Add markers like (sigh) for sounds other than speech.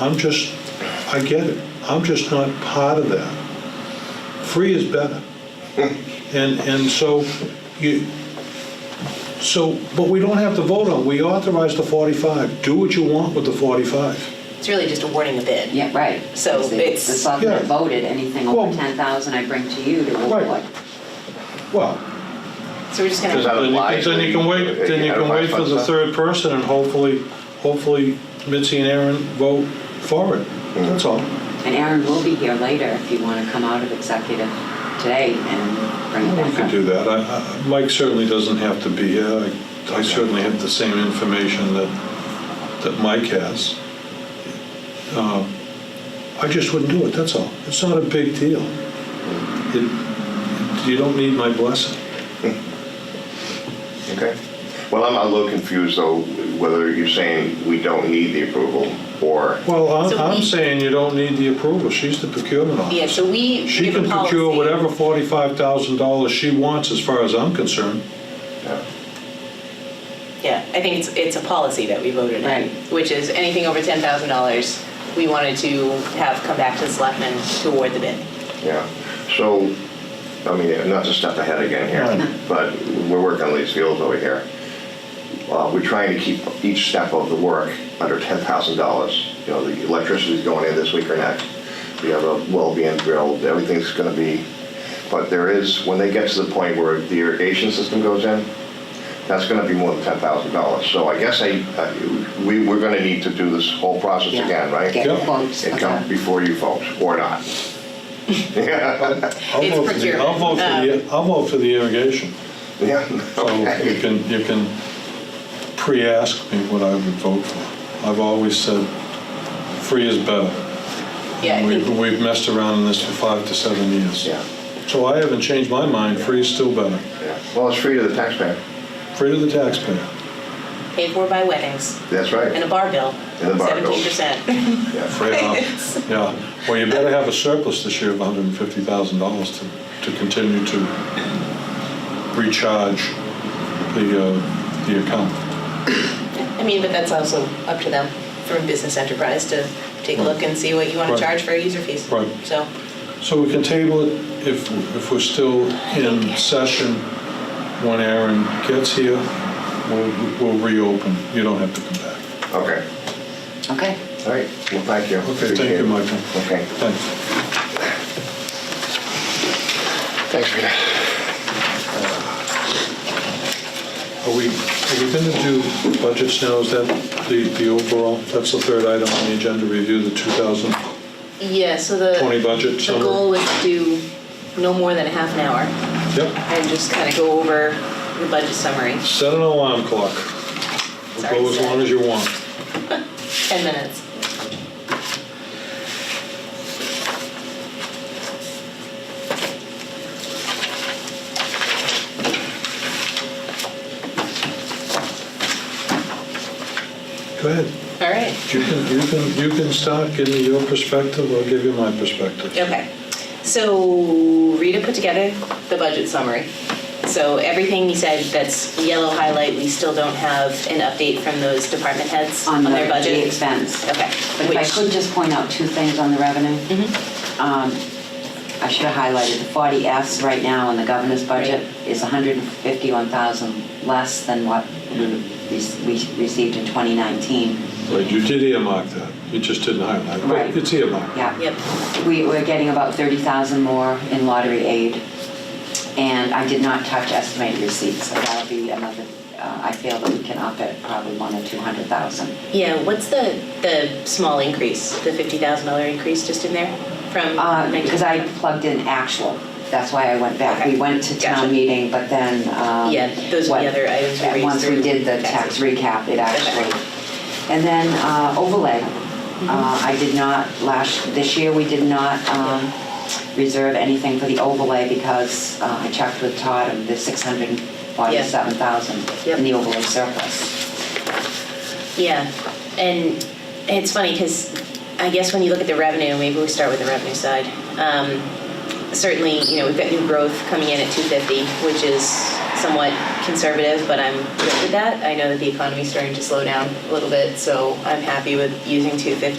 I'm just, I get it. I'm just not part of that. Free is (laughs) better. And, and so you, so, but we don't have to vote on, we authorized the 45. Do what you want with the 45. It's really just awarding a bid. Yeah, right. So Because the- it's- The selectmen Yeah. voted, anything Well- over ten thousand I bring to you to Right. award. Well, So we're just gonna. Does that then you apply can- then you can wait, to- then you can identify wait for the funds? third person and hopefully, hopefully Mitzi and Aaron vote for it. That's all. And Aaron will be here later if you wanna come out of executive today and bring it We back could up. do that. I- I- Mike certainly doesn't have to be here. I- I certainly have the same information that, that Mike has. Um, I just wouldn't do it, that's all. It's not a big deal. It- You don't need my blessing. Okay. Well, I'm a little confused though, whether you're saying we don't need the approval or, Well, I'm, So I'm we- saying you don't need the approval. She's the procurement Yeah, officer. so we She give a can procure policy. whatever forty-five thousand dollars she wants, as far as I'm concerned. Yeah, I think it's, it's a policy that we voted in, Right. which is anything over ten thousand dollars, we wanted to have come back to the selectmen to award the bid. yeah. So, I mean, not to step ahead again Right. here, but we're working on these fields over here. Uh, We're trying to keep each step of the work under $10,000. You know, the electricity's going in this week or next. We have a well being drilled, everything's going to be, but there is, when they get to the point where the irrigation system goes in, that's going to be more than $10,000. So I guess I, I- we, we're going to need to do this whole process Yeah. again, right? Get Yep. quotes. It comes okay. before you folks, (laughs) or I'll not. It's vote for the- procurement. I'll vote for the, I'll vote for the irrigation. Yeah, So you okay. can, you can pre-ask me what I would vote for. I've always said, free is better. Yeah, I And think- We've we've messed around in this for five to seven years. Yeah, So I haven't changed my mind, free is still better. yeah. Well, it's free to the taxpayer. Free to the taxpayer. paid for by weddings That's right. and a bar bill, And a bar bill. seventeen (laughs) percent. Yeah. Free enough. (laughs) Yeah, well, you better have a surplus this year of $150,000 to, to continue to recharge the, uh, the account. I mean, but that's also up to them for a business enterprise to take a look and see what you wanna Right. charge for user fees. Right. So, So we can table it if, if we're still in session when Aaron gets here, we'll, we'll reopen. You don't have to come back. Okay, Okay. all right, well, thank you. Okay, thank Appreciate you, it. Michael. Okay, Thanks. thanks for that. Are we, are we going to do budgets now? Is that the, the overall? That's the third item on the agenda, review the 2020 yeah, so the. budget The goal summary. was to do no more than a half an hour Yep, and just kind of go over the budget summary, set an alarm clock. We'll Sorry, Go as Seth. long as you want. 10 minutes. Go ahead. All right. You can, you can, you can start, give me your perspective, I'll give you my perspective. Okay. So Rita put together the budget summary. So everything you said that's yellow highlight, we still don't have an update from those department heads on On the their the budget. expense. Okay. But if I Which- Mm-hmm. could just point out two things on the revenue. Um, I should have highlighted the 40S right now in the governor's budget is 151,000 less than what we we received in 2019. Right, you did earmark that, you just didn't highlight, Right. but it's earmarked. Yeah. Yep. We were getting about 30,000 more in lottery aid, and I did not touch estimated receipts, so that'll be another, uh, I feel that we can up it probably one or 200,000. Yeah, what's the, the small increase, the $50,000 increase just in there from? Uh, Because I 19? plugged in actual, that's why I went back. We Okay. went to Gotcha. town meeting, but then. um, Yeah, those are the what- other items we and raised Once through we did the tax taxation. recap, it actually. And then uh, overlay. Mm-hmm. Uh, I did not, last, this year, we did not um, reserve anything for the overlay because uh, I checked with Todd and the 647,000 Yep. in the overlay surplus. Yeah, and it's funny because I guess when you look at the revenue, maybe we start with the revenue side. Um, certainly, you know, we've got new growth coming in at 250, which is somewhat conservative, but I'm good with that. I know that the economy's starting to slow down a little bit, so I'm happy with using 250.